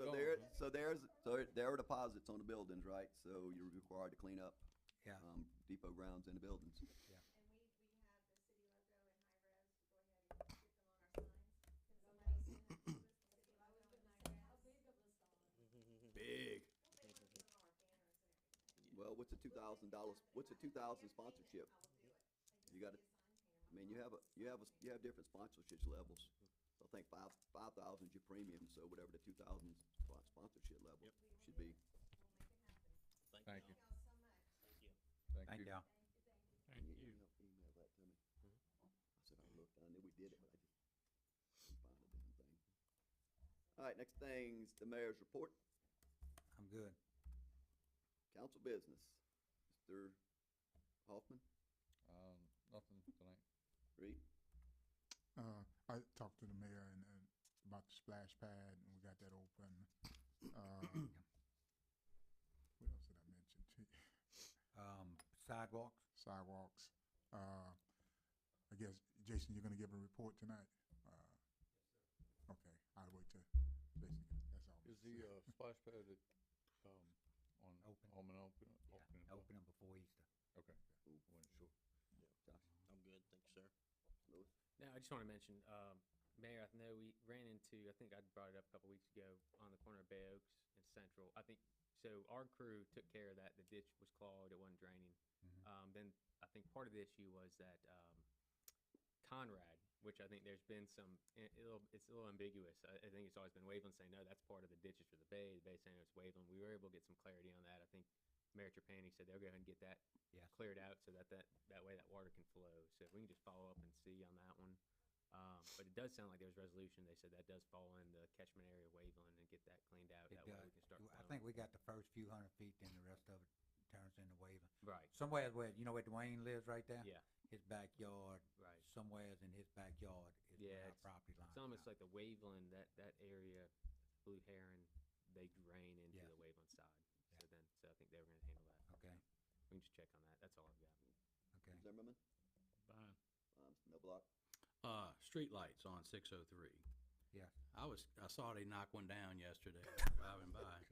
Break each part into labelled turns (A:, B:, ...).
A: so there's, so there are deposits on the buildings, right? So you're required to clean up,
B: Yeah.
A: um, depot grounds and the buildings.
C: And we, we have the city logo and high res, go ahead and stick them on our signs. Can somebody send us the list of city logo and high res?
A: Big.
C: They put them on our banners and everything.
A: Well, what's a two thousand dollars, what's a two thousand sponsorship? You gotta, I mean, you have, a you have, a you have different sponsorship levels. I think five, five thousand is your premium, so whatever the two thousand sponsorship level should be.
D: Thank you.
C: Thank y'all so much.
B: Thank
E: Thank
A: Can
B: you.
E: you.
A: help Email that to me. I said, I looked, I knew we did it, but I just couldn't find the damn thing. All right, next thing's the mayor's report,
B: I'm good.
A: council business. Mr. Hoffman,
D: Um, nothing tonight.
A: Reed,
F: Uh, I talked to the mayor and, and about the splash pad, and we got that open. Uh, What else did I mention? Gee,
B: Um, sidewalks,
F: Sidewalks. Uh, I guess, Jason, you're gonna give a report tonight? Uh, okay, I'll wait till Jason, gets- that's all.
D: Is the, uh, splash pad at, um, on,
B: Open.
D: on an open,
B: yeah,
D: open? as well?
B: uh, open them before Easter.
D: Okay, wasn't sure.
G: I'm good, thank you, sir.
A: Louis,
H: No, I just want to mention, um, Mayor, I know we ran into, I think I brought it up a couple weeks ago, on the corner of Bay Oaks and Central. I think, so our crew took care of that. The ditch was clogged, it wasn't draining.
B: Mhm.
H: Um, then I think part of the issue was that, um, Conrad, which I think there's been some, i- a little- it's a little ambiguous. I, I think it's always been Waveland saying, no, that's part of the ditches for the Bay. The Bay saying it's Waveland. We were able to get some clarity on that. I think Mayor Trapani said they'll go ahead and get that
B: Yes.
H: cleared out so that, that, that way that water can flow. So if we can just follow up and see on that one. Um, but it does sound like there was resolution. They said that does fall in the catchment area of Waveland and get that cleaned out.
B: It
H: That way
B: does.
H: we can start
B: I
H: flowing.
B: think we got the first few hundred feet, then the rest of it turns into waving.
H: Right,
B: Somewhere where, you know where Dwayne lives right there?
H: yeah,
B: His backyard,
H: right.
B: somewheres in his backyard is
H: Yeah,
B: where our
H: it's-
B: property line.
H: It's almost like the Waveland, that, that area, Blue Heron, they drain into
B: Yes.
H: the Waveland side.
B: Yeah.
H: So then, so I think they were gonna handle that.
B: Okay,
H: We can just check on that. That's all I've got.
B: okay.
A: Zimmerman,
E: Fine.
A: um, no block.
E: Uh, streetlights on six oh three.
B: Yes.
E: I was, I saw they knock one down yesterday, driving by.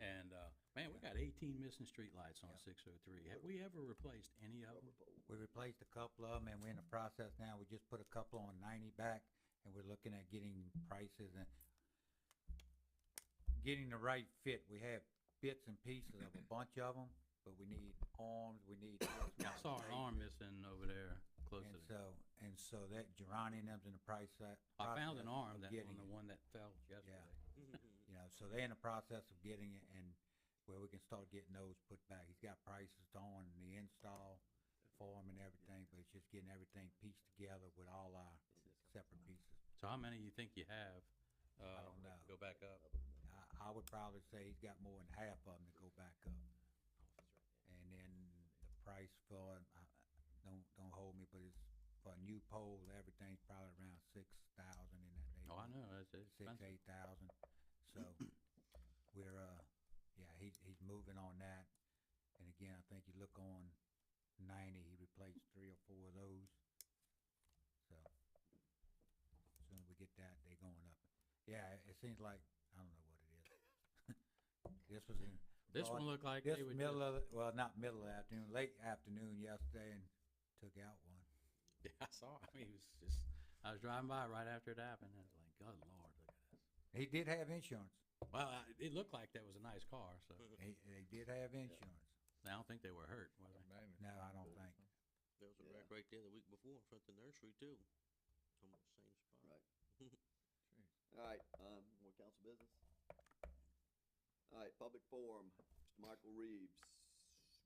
E: And, uh, man, we got eighteen missing streetlights
B: Yeah.
E: on six oh three. Have we ever replaced any of them?
A: Rubber pole.
B: We replaced a couple of them and we're in the process now. We just put a couple on ninety back and we're looking at getting prices and getting the right fit. We have bits and pieces of a bunch of them, but we need arms, we need.
E: Yeah, I saw an arm missing over there close to the,
B: And so, and so that Geronimo's and them's in the price. that-
E: I found an
B: process
E: arm
B: of
E: that,
B: getting
E: on the
B: it,
E: one that fell yesterday.
B: You know, so they're in the process of getting it and where we can start getting those put back. He's got prices on the install for 'em and everything, but it's just getting everything pieced together with all our separate pieces.
E: So how many you think you have? Uh,
B: don't know.
E: Go back up.
B: I, I would probably say he's got more than half of them to go back up. And then the price for, I- I- don't, don't hold me, but it's for a new pole, everything's probably around six thousand in that neighborhood.
E: Oh, I know, it's it's
B: Six,
E: expensive.
B: eight thousand, so we're, uh, yeah, he, he's moving on that. And again, I think you look on ninety, he replaced three or four of those. So, soon as we get that, they going up. Yeah, it- it seems like, I don't know what it is. This was in,
E: This one looked
B: Lord,
E: like
B: this
E: they were
B: middle
E: just,
B: of, the- well, not middle of the afternoon, late afternoon yesterday and took out one.
E: yeah, I saw, I mean, it was just, I was driving by right after it happened, and I was like, good lord, look at this.
B: He did have insurance.
E: Well, I- it looked like that was a nice car, so
B: He, they did have insurance.
E: I don't think they were hurt, were they?
D: Magnet.
B: No, I don't think.
G: There was a
A: Yeah.
G: wreck right there the week before in front of the nursery too. On the same spot.
A: Right.
D: Jeez.
A: All right, um, more council business? All right, public forum, Mr. Michael Reeves,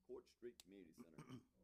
A: Court Street Community Center.